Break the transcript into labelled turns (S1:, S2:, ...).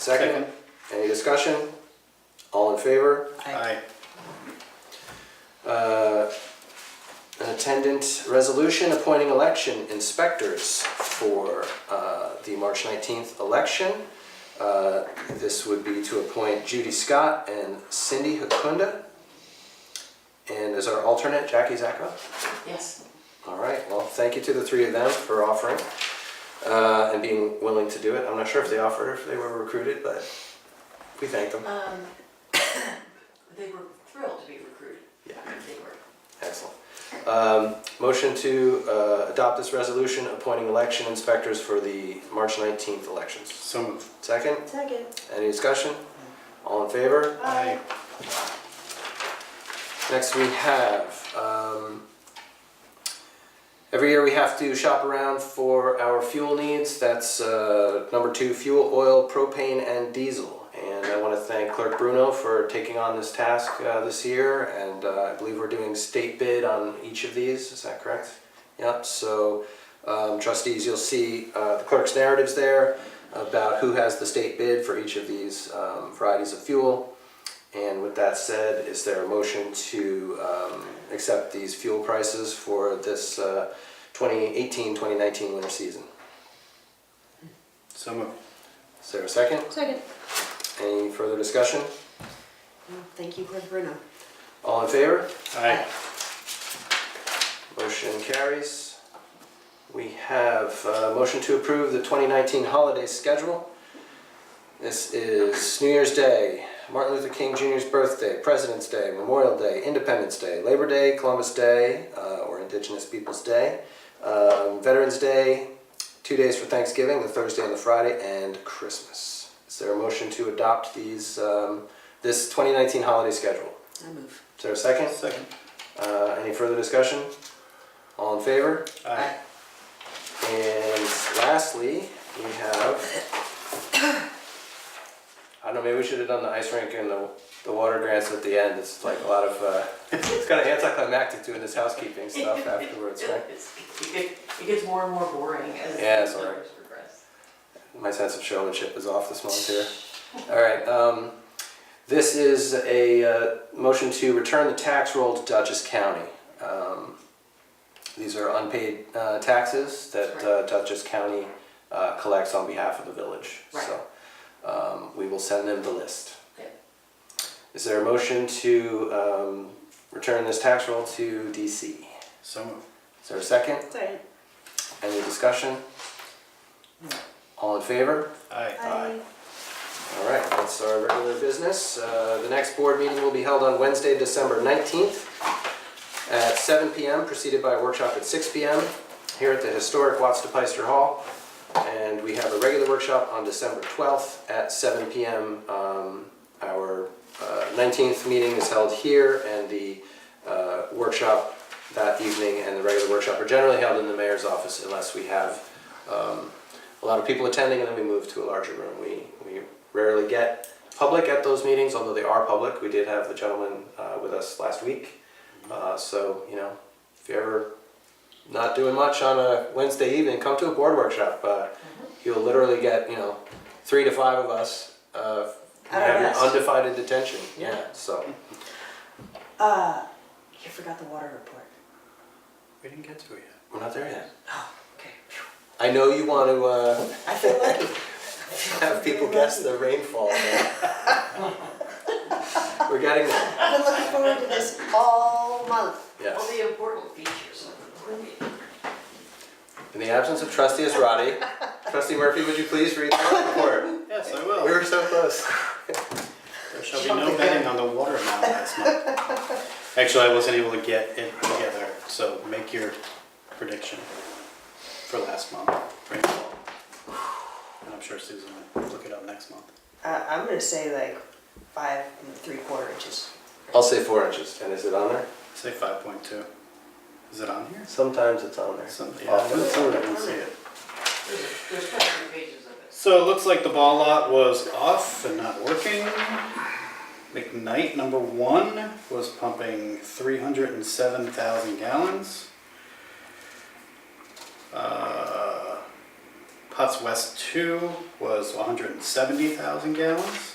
S1: Second, any discussion? All in favor?
S2: Aye.
S1: Uh, An attendant resolution appointing election inspectors for uh, the March 19th election. Uh, This would be to appoint Judy Scott and Cindy Hakunda. And as our alternate, Jackie Zacco.
S3: Yes.
S1: All right, well, thank you to the three of them for offering uh, and being willing to do it. I'm not sure if they offered, if they were recruited, but we thank them.
S3: Um, They were thrilled to be recruited.
S1: Yeah.
S3: They were.
S1: Excellent. Um, Motion to uh, adopt this resolution appointing election inspectors for the March 19th elections.
S2: So moved.
S1: Second,
S3: Second.
S1: any discussion? All in favor?
S3: Aye.
S1: Next, we have, um, every year we have to shop around for our fuel needs. That's uh, number two, fuel, oil, propane, and diesel. And I want to thank Clerk Bruno for taking on this task uh, this year, and uh, I believe we're doing state bid on each of these, is that correct? Yep, so um, trustees, you'll see uh, the clerk's narratives there about who has the state bid for each of these um, varieties of fuel. And with that said, is there a motion to um, accept these fuel prices for this uh, 2018-2019 winter season?
S2: So moved.
S1: Is there a second?
S4: Second.
S1: Any further discussion?
S3: Thank you, Greg Bruno.
S1: All in favor?
S2: Aye.
S1: Motion carries. We have a motion to approve the 2019 holiday schedule. This is New Year's Day, Martin Luther King Jr.'s birthday, President's Day, Memorial Day, Independence Day, Labor Day, Columbus Day, uh, or Indigenous Peoples' Day, um, Veterans Day, two days for Thanksgiving, the Thursday and the Friday, and Christmas. Is there a motion to adopt these, um, this 2019 holiday schedule?
S3: I move.
S1: Is there a second?
S2: Second.
S1: Uh, any further discussion? All in favor?
S2: Aye.
S1: And lastly, we have, I don't know, maybe we should have done the ice rink and the, the water grants at the end. It's like a lot of, uh, it's kind of anticlimactic doing this housekeeping stuff afterwards, right?
S3: It's- It get- it gets more and more boring as
S1: Yeah, it's
S3: the
S1: all right.
S3: numbers progress.
S1: My sense of showmanship is off this month here. All right, um, this is a, uh, motion to return the tax roll to Dutchess County. Um, These are unpaid, uh, taxes that
S3: Right.
S1: uh, Dutchess County, uh, collects on behalf of the village.
S3: Right.
S1: So, um, we will send them the list.
S3: Yep.
S1: Is there a motion to, um, return this tax roll to DC?
S2: So moved.
S1: Is there a second?
S4: Second.
S1: Any discussion? All in favor?
S2: Aye.
S1: Aye. All right, that's our regular business. Uh, The next board meeting will be held on Wednesday, December 19th at 7 PM, preceded by a workshop at 6 PM here at the historic Watts de Peister Hall. And we have a regular workshop on December 12th at 7 PM. Um, Our uh, 19th meeting is held here, and the uh, workshop that evening and the regular workshop are generally held in the mayor's office unless we have um, a lot of people attending, and then we move to a larger room. We, we rarely get public at those meetings, although they are public. We did have the gentleman uh, with us last week. Uh, so, you know, if you're ever not doing much on a Wednesday evening, come to a board workshop. Uh,
S4: Mm-hmm.
S1: you'll literally get, you know, three to five of us uh,
S4: At our
S1: have your
S4: best.
S1: undivided attention.
S3: Yeah.
S1: so.
S4: Uh, you forgot the water report.
S2: We didn't get to it yet.
S1: We're not there yet.
S3: Oh, okay.
S1: I know you want to uh,
S4: I feel lucky.
S1: have people guess the rainfall. but We're getting there.
S4: I've been looking forward to this all month.
S1: Yes.
S3: All the important features of the board meeting.
S1: In the absence of trustee Israti, trustee Murphy, would you please read the report?
S2: Yes, I
S1: We
S2: will.
S1: were so close.
S2: There shall be no betting on the water amount last month. Actually, I wasn't able to get it together, so make your prediction for last month. Rainfall. And I'm sure Susan will look it up next month.
S5: Uh, I'm gonna say like five and three quarter inches.
S1: I'll say four inches. And is it on there?
S2: Say five point two. Is it on here?
S1: Sometimes it's on there.
S2: Something, yeah,
S1: Often
S2: it's
S1: it's
S2: on
S1: on
S2: there, I
S1: there.
S2: didn't see it.
S3: There's there's quite a few pages of it.
S2: So it looks like the ball lot was off and not working. McKnight number one was pumping 307,000 gallons. Uh, Putts West Two was one hundred and seventy thousand gallons.